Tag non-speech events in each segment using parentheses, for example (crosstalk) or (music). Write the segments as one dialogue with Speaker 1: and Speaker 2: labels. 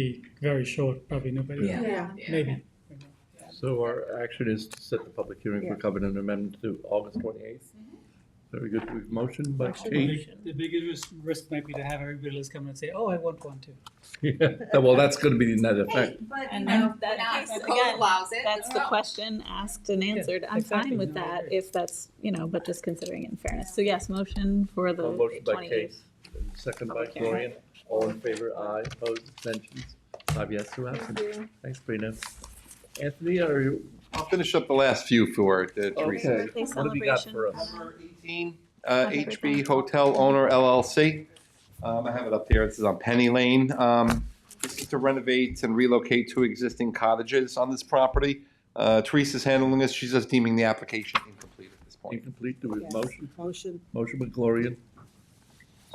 Speaker 1: be very short, probably nobody,
Speaker 2: Yeah.
Speaker 3: Yeah.
Speaker 1: maybe.
Speaker 4: So our action is to set the public hearing for covenant amendment to August twenty-eighth. Very good, we've motioned by Kate.
Speaker 1: The biggest risk might be to have everybody else come and say, oh, I want one too.
Speaker 4: Yeah, Well, that's gonna be the net
Speaker 3: Hey,
Speaker 4: effect.
Speaker 3: but you
Speaker 2: And
Speaker 3: know,
Speaker 2: that-
Speaker 3: now if
Speaker 2: that-
Speaker 3: the code
Speaker 2: again,
Speaker 3: allows it. oh.
Speaker 2: That's the
Speaker 3: well.
Speaker 2: question asked and answered. I'm
Speaker 1: exactly.
Speaker 2: fine with
Speaker 1: No, I
Speaker 2: that
Speaker 1: agree.
Speaker 2: if that's, you know, but just considering it in fairness. So yes, motion for
Speaker 4: A
Speaker 2: the
Speaker 4: Oh, motion by Kate,
Speaker 2: twenty-eighth.
Speaker 4: and second by
Speaker 2: Public hearing.
Speaker 4: Gloria, all in favor, aye, opposed, abstentions, five yes, two absent. Thanks, Brina. Anthony, are you,
Speaker 5: I'll finish up the last few for uh, Teresa.
Speaker 4: okay,
Speaker 2: birthday
Speaker 4: what have you got
Speaker 2: celebration.
Speaker 4: for us?
Speaker 5: Number 18, uh,
Speaker 2: Happy birthday.
Speaker 5: HB Hotel Owner LLC. Um, I have it up there. This is on Penny Lane. Um, This is to renovate and relocate two existing cottages on this property. Uh, Teresa's handling this. She's just deeming the application incomplete at this point.
Speaker 4: Incomplete, do we have motion?
Speaker 6: Motion.
Speaker 4: Motion by Gloria,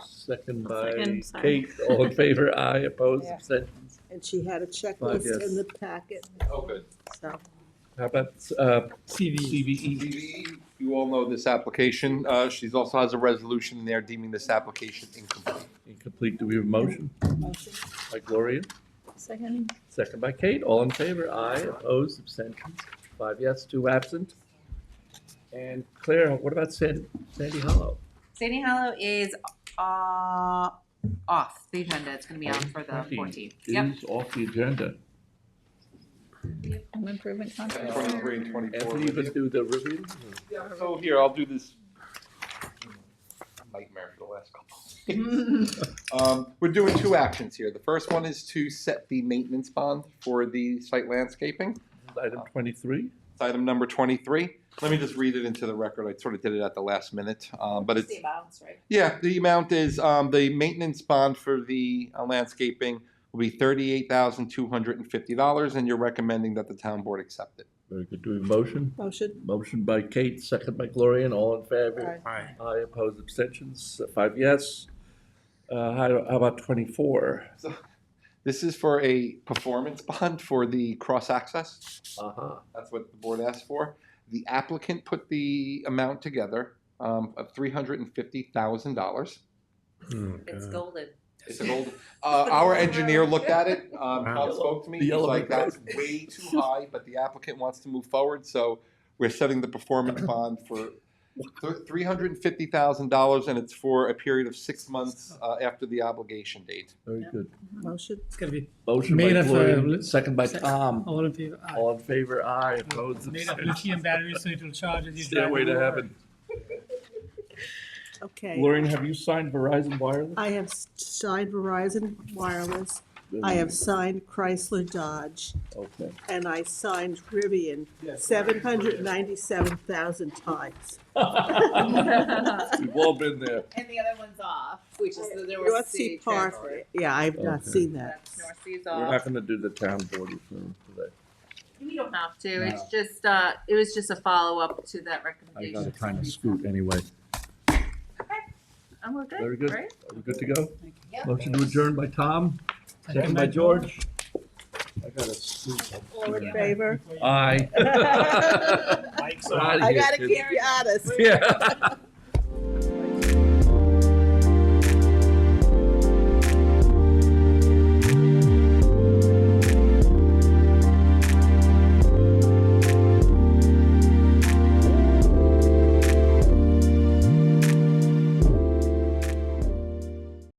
Speaker 4: second by
Speaker 2: Second, sorry.
Speaker 4: Kate, all in favor, aye, opposed,
Speaker 6: Yeah.
Speaker 4: abstentions.
Speaker 6: And she had a
Speaker 4: Five,
Speaker 6: checklist
Speaker 4: yes.
Speaker 6: in the packet,
Speaker 5: Oh, good.
Speaker 6: so.
Speaker 4: How about, uh,
Speaker 1: CV.
Speaker 4: CVE?
Speaker 5: DVE, E You all know this application. Uh, She's also has a resolution in there deeming this application incomplete.
Speaker 4: Incomplete, do we have a motion
Speaker 6: Motion.
Speaker 4: by Gloria?
Speaker 2: Second,
Speaker 4: Second by Kate, all in favor, aye, opposed, abstentions, five yes, two absent. And Claire, what about San- Sandy Hollow?
Speaker 3: Sandy Hollow is, uh, off the agenda. It's gonna be on for the
Speaker 4: Fourteenth.
Speaker 3: fourteenth. Yep.
Speaker 4: It is off the agenda.
Speaker 2: home improvement contract.
Speaker 4: (laughs)
Speaker 5: 23 and 24.
Speaker 4: Anthony, you gonna do the review?
Speaker 5: Yeah, so here, I'll do this nightmare for the last couple. Um, we're doing two actions here. The first one is to set the maintenance bond for the site landscaping.
Speaker 4: Item twenty-three,
Speaker 5: It's item number twenty-three. Let me just read it into the record. I sort of did it at the last minute, um, but it's,
Speaker 3: The amounts, right?
Speaker 5: yeah, the amount is, um, the maintenance bond for the uh, landscaping will be thirty-eight thousand two hundred and fifty dollars, and you're recommending that the town board accept it.
Speaker 4: very good, do we have a motion?
Speaker 6: Motion.
Speaker 4: Motion by Kate, second by Gloria, and all in favor?
Speaker 6: Aye.
Speaker 4: Aye, opposed, abstentions, five yes. Uh, how how about twenty-four?
Speaker 5: This is for a performance (laughs) bond for the cross-access.
Speaker 4: Uh-huh,
Speaker 5: That's what the board asked for. The applicant put the amount together um, of three hundred and fifty thousand dollars.
Speaker 4: Hmm.
Speaker 3: It's golden.
Speaker 5: It's an old. Uh, our engineer looked at it. Um, Tom spoke to me.
Speaker 4: The
Speaker 5: He's
Speaker 4: yellow
Speaker 5: like,
Speaker 4: brick road.
Speaker 5: "That's way too high," but the applicant wants to move forward, so we're setting the performance bond for three hundred and fifty thousand dollars, and it's for a period of six months uh, after the obligation date.
Speaker 4: very good.
Speaker 6: Motion.
Speaker 1: It's gonna be
Speaker 4: Motion by
Speaker 1: Made of, uh,
Speaker 4: Gloria,
Speaker 1: li-
Speaker 4: second by Tom,
Speaker 1: all in favor, aye.
Speaker 4: all in favor, aye, opposed,
Speaker 1: Made of
Speaker 4: abstentions.
Speaker 1: lithium batteries, so it will charge as you drive.
Speaker 4: Stairway
Speaker 1: it
Speaker 4: to
Speaker 1: over.
Speaker 4: heaven.
Speaker 6: Okay.
Speaker 4: Lorraine, have you signed Verizon Wireless?
Speaker 6: I have s- signed Verizon Wireless, I have signed Chrysler Dodge,
Speaker 4: Okay,
Speaker 6: and I signed Rivian
Speaker 1: (laughs)
Speaker 6: seven hundred ninety-seven thousand times.
Speaker 4: we've all been there.
Speaker 3: And the other one's off, which is the North
Speaker 6: North
Speaker 3: Sea
Speaker 6: Sea Park,
Speaker 3: Transport.
Speaker 6: yeah, I've not
Speaker 4: Okay.
Speaker 6: seen that.
Speaker 3: That's North Sea's
Speaker 4: We're not
Speaker 3: off.
Speaker 4: gonna do the town board reform today.
Speaker 3: You don't have to. It's just, uh, it was just a follow-up to that
Speaker 4: I
Speaker 3: recommendation.
Speaker 4: gotta kinda scoot anyway.
Speaker 3: And we're good,
Speaker 4: Very good.
Speaker 3: right?
Speaker 4: Are we good to go?
Speaker 3: Yep.
Speaker 4: Motion to adjourn by Tom, second by George. I gotta scoot.
Speaker 6: All in favor?
Speaker 4: Aye. (laughs)
Speaker 6: I
Speaker 4: We're outta
Speaker 6: gotta
Speaker 4: here,
Speaker 6: keep you honest.
Speaker 4: kids. Yeah.